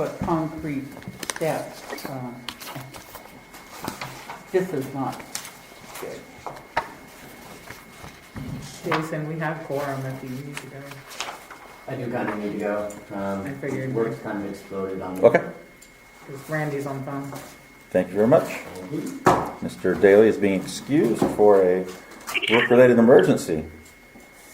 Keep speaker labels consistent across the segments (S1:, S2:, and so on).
S1: but concrete steps, uh, this is not good.
S2: Jason, we have quorum if you need to go.
S3: I do kind of need to go. Um,
S2: I figured.
S3: Work's kind of exploded on me.
S4: Okay,
S2: Because Randy's on phone.
S4: thank you very much.
S3: Um,
S4: Mr. Daly is being excused for a work-related emergency.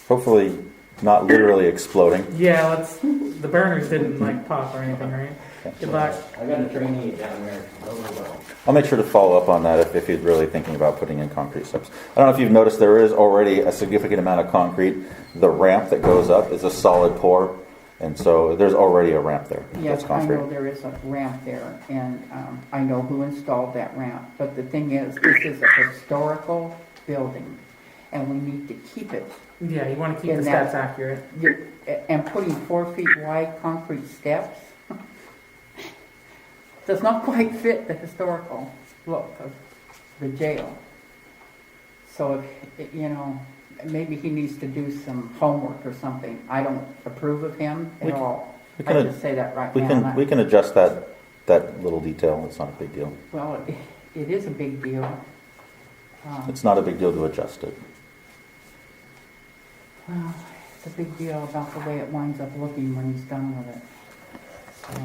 S4: Hopefully, not literally exploding.
S2: Yeah, let's, the burners didn't like pop or anything, right? Good luck.
S3: I got a trainee down there. Oh, well.
S4: I'll make sure to follow up on that if, if he's really thinking about putting in concrete steps. I don't know if you've noticed, there is already a significant amount of concrete. The ramp that goes up is a solid pour, and so there's already a ramp there
S1: Yes,
S4: that's
S1: I know
S4: concrete.
S1: there is a ramp there, and um, I know who installed that ramp, but the thing is, this is a historical building, and we need to keep it.
S2: Yeah, you want to keep the
S1: In that-
S2: steps accurate.
S1: You're- And putting four feet wide concrete steps does not quite fit the historical look of the jail. So, if you know, maybe he needs to do some homework or something. I don't approve of him
S4: We
S1: at
S4: can-
S1: all.
S4: we
S1: I
S4: can-
S1: just say that right
S4: We
S1: now.
S4: can,
S1: Not-
S4: we can adjust that, that little detail, it's not a big deal.
S1: Well, it- it is a big deal. Um,
S4: It's not a big deal to adjust it.
S1: Well, it's a big deal about the way it winds up looking when he's done with it. So-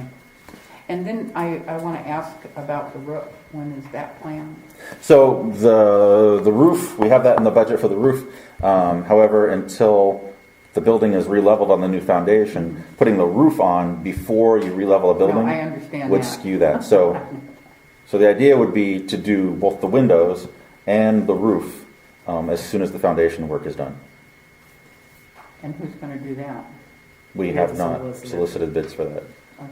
S1: And then I, I want to ask about the roof. When is that planned?
S4: So the the roof, we have that in the budget for the roof. Um, however, until the building is re-leveled on the new foundation, putting the roof on before you re-level a building
S1: No, I understand
S4: would
S1: that.
S4: skew that. So, so the idea would be to do both the windows and the roof um, as soon as the foundation work is done.
S1: And who's going to do that?
S4: We
S2: We
S4: have
S2: have
S4: not
S2: solicited.
S4: solicited bids for that.
S1: Okay.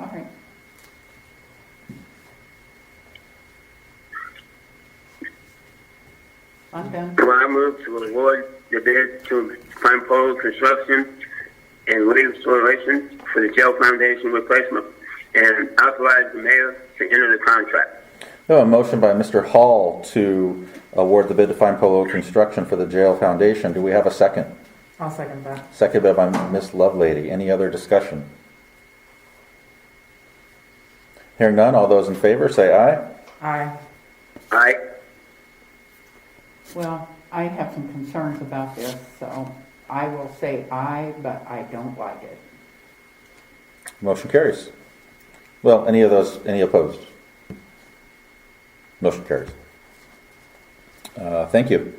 S1: All right. I'm done.
S5: So I move to award the bid to Pine Pole Construction and Williams Flooration for the jail foundation replacement and authorize the mayor to enter the contract.
S4: We have a motion by Mr. Hall to award the bid to Fine Polo Construction for the jail foundation. Do we have a second?
S2: I'll second that.
S4: Seconded by Miss Lovelady. Any other discussion? Hearing none, all those in favor say aye.
S2: Aye.
S5: Aye.
S1: Well, I have some concerns about this, so I will say aye, but I don't like it.
S4: Motion carries. Well, any of those, any opposed? Motion carries. Uh, Thank you.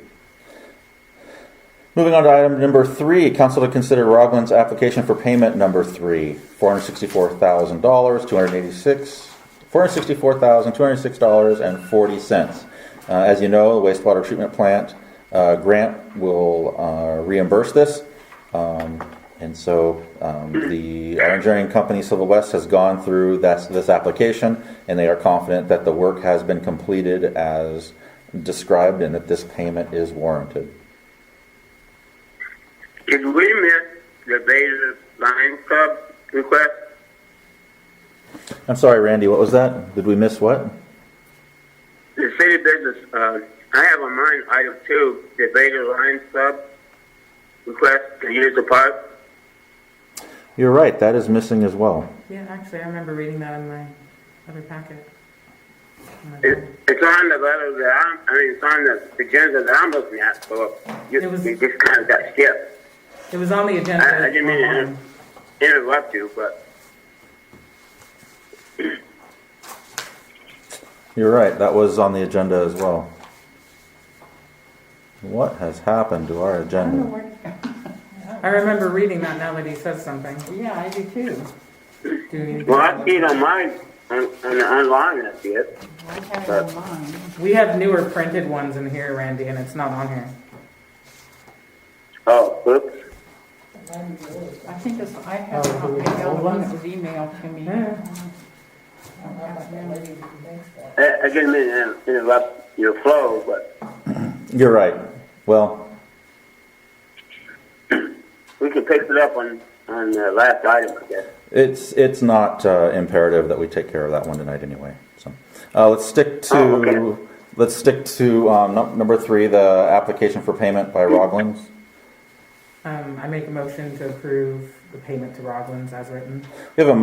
S4: Moving on to item number three, council to consider Rogland's application for payment number three, four hundred sixty-four thousand dollars, two hundred eighty-six, four hundred sixty-four thousand, two hundred six dollars and forty cents. Uh, as you know, the wastewater treatment plant, uh, grant will, uh, reimburse this. Um, and so, um, the, our engineering company, Civil West, has gone through this, this application, and they are confident that the work has been completed as described and that this payment is warranted.
S5: Did we miss the Baylor Lions Club request?
S4: I'm sorry, Randy, what was that? Did we miss what?
S5: The city business, uh, I have on mine item two, the Baylor Lions Club request to use the park.
S4: You're right, that is missing as well.
S2: Yeah, actually, I remember reading that in my other packet. Oh my
S5: It,
S2: God.
S5: it's on the letter that I'm, I mean, it's on the agenda that I'm looking at, so you,
S2: It was-
S5: you just kind of got skipped.
S2: It was on the agenda.
S5: I, I didn't mean to
S2: online.
S5: inter- interrupt you, but
S4: You're right, that was on the agenda as well. What has happened to our
S1: I don't know
S4: agenda?
S1: where,
S2: I remember reading that now that he says something.
S1: yeah, I do too.
S2: Do we need to-
S5: well, I see it on mine on, on the online. I see it.
S1: I have it on mine.
S2: We have newer printed ones in here, Randy, and it's not on here.
S5: Oh, oops.
S1: I think it's, I have a copy of the old one that was emailed to me.
S5: I, I didn't mean to inter- interrupt your flow, but
S4: You're right. Well,
S5: we can pick it up on on the last item, I guess.
S4: it's, it's not uh, imperative that we take care of that one tonight anyway, so. Uh, let's stick
S5: Oh, okay.
S4: to, let's stick to, um, num- number three, the application for payment by Roglins.
S2: Um, I make a motion to approve the payment to Roglins as written?
S4: We have a